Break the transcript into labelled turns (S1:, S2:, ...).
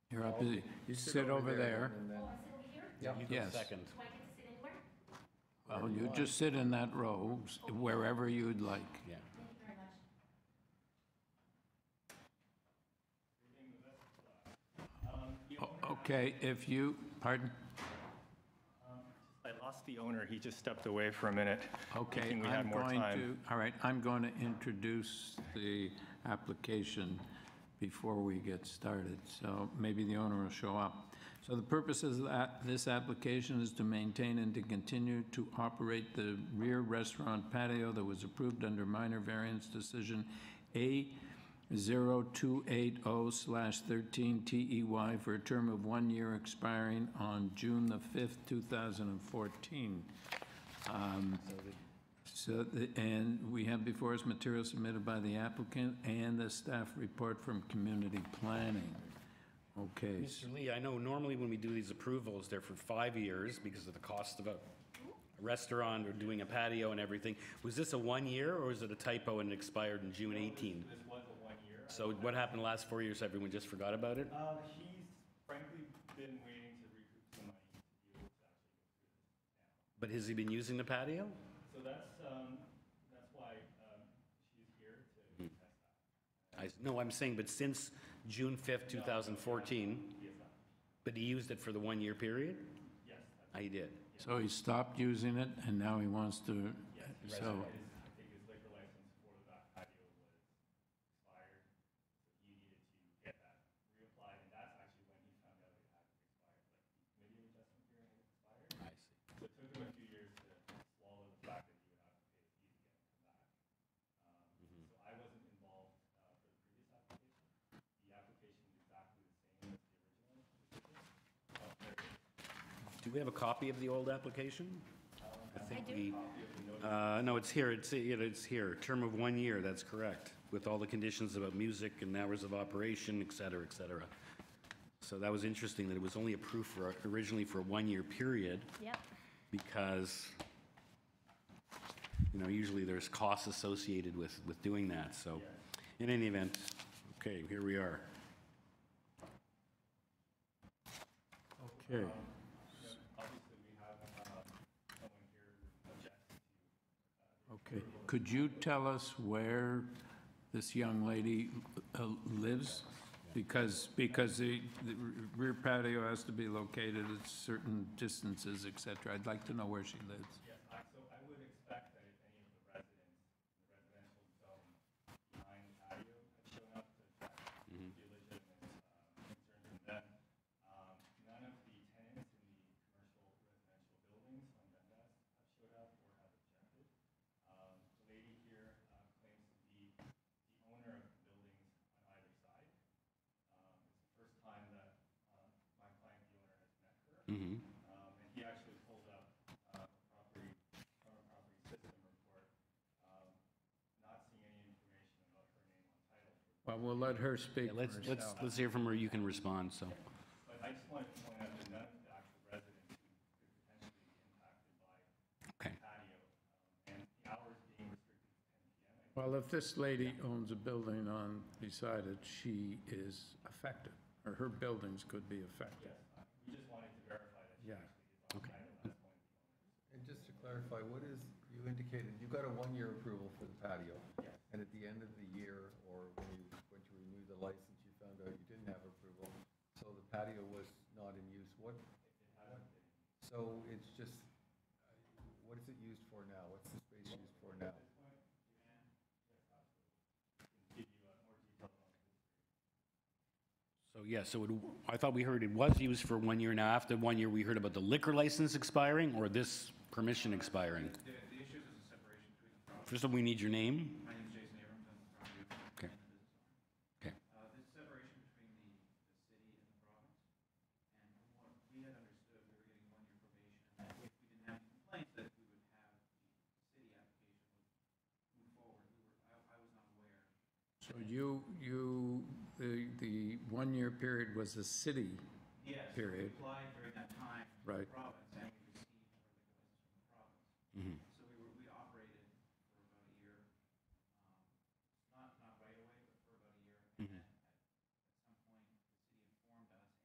S1: You're up, you you sit over there.
S2: Oh, I sit over
S3: You go
S2: here?
S1: Yes.
S3: second.
S2: Do I get to sit anywhere?
S1: Well, you just sit in that row, s- wherever you'd like.
S3: Yeah.
S2: Thank you very much.
S1: O- Okay, if you, pardon?
S4: I lost the owner, he just stepped away for a minute.
S1: Okay,
S4: thinking we had
S1: I'm
S4: more
S1: going
S4: time.
S1: to, all right, I'm going to introduce the application before we get started, so maybe the owner will show up. So the purpose of that, this application is to maintain and to continue to operate the rear restaurant patio that was approved under minor variance decision A 0280/13TEY E for a term of one year expiring on June the 5th, 2014. Um, So, the- and we have before us material submitted by the applicant and the staff report from community planning. Okay, s-
S3: Mr. Lee, I know normally when we do these approvals, they're for five years because of the cost of a restaurant or doing a patio and everything. Was this a one year or was it a typo and it expired in June 18?
S4: This was a one-year.
S3: So what happened the last four years? Everyone just forgot about it?
S4: Um, he's frankly been waiting to recoup some money.
S3: But has he been using the patio?
S4: So that's, um, that's why, um, she's here to test that.
S3: I, no, I'm saying, but since June 5th, 2014, but he used it for the one year period? Yes. He did.
S1: so he stopped using it and now he wants to, so,
S4: I think his liquor license for the back patio was expired, so he needed to get that reapplied, and that's actually when he found out it had expired, like, maybe adjustment hearing had expired.
S3: I see.
S4: So it took him a few years to swallow the fact that he would have to pay a fee to get him back. Um, So I wasn't involved uh, for the previous application. The application is exactly the same as the original.
S3: Do we have a copy of the old application? I think we, uh, no, it's here, it's, it- it's here, term of one year, that's correct, with all the conditions about music and hours of operation, et cetera, et cetera. So that was interesting, that it was only approved for, originally for a one-year period,
S2: Yep.
S3: because, you know, usually there's costs associated with, with doing that, so. In any event, okay, here we are.
S1: okay.
S4: Um, Obviously, we have uh, someone here who objects to uh,
S1: Okay, could you tell us where this young lady uh, lives? Because, because the the rear patio has to be located at certain distances, et cetera. I'd like to know where she lives.
S4: Yes, I- so I would expect that if any of the residents in the residential zone behind the patio had shown up to check the legitimate uh, concerns from them, um, none of the tenants in the commercial residential buildings on Dundas have showed up or have objected. Um, The lady here uh, claims to be the owner of the buildings on either side. Um, It's the first time that uh, my client, the owner, has met her. Um, and he actually pulled up, uh, property, current property system report, um, not seeing any information about her name on title.
S1: Well, we'll let her speak
S3: Yeah, Let's, let's, let's hear from her, you can respond, so.
S4: But I just wanted to point out that none of the actual residents who could potentially be impacted by
S3: Okay,
S4: patio, um, and the hours being restricted to ten PM. I
S1: Well, if this lady owns a building on, beside it, she is affected, or her buildings could be affected.
S4: We just wanted to verify that she
S1: Yeah.
S3: okay.
S5: And just to clarify, what is, you indicated, you got a one-year approval for the patio. And at the end of the year, or when you, when you renew the license, you found out you didn't have approval, so the patio was not in use. What? what- So it's just, uh, what is it used for now? What's the space used for now?
S3: So, yeah, so it, I thought we heard it was used for one year. Now, after one year, we heard about the liquor license expiring or this permission expiring?
S6: The, the issue is a separation between, the property-
S3: First of all, we need your name.
S6: my name is Jason Abrams, I'm the property owner and the
S3: Okay.
S6: business owner.
S3: Okay.
S6: Uh, this separation between the, the city and the province, and from what we had understood, we were getting one-year probation, and that if we didn't have any complaints, that we would have the city application would move forward. We were, I, I was not aware.
S1: So you, you, the, the one-year period was the city,
S6: Yes,
S1: Period.
S6: we applied during that time. to
S1: Right.
S6: the province, and we received our liquor license from the province.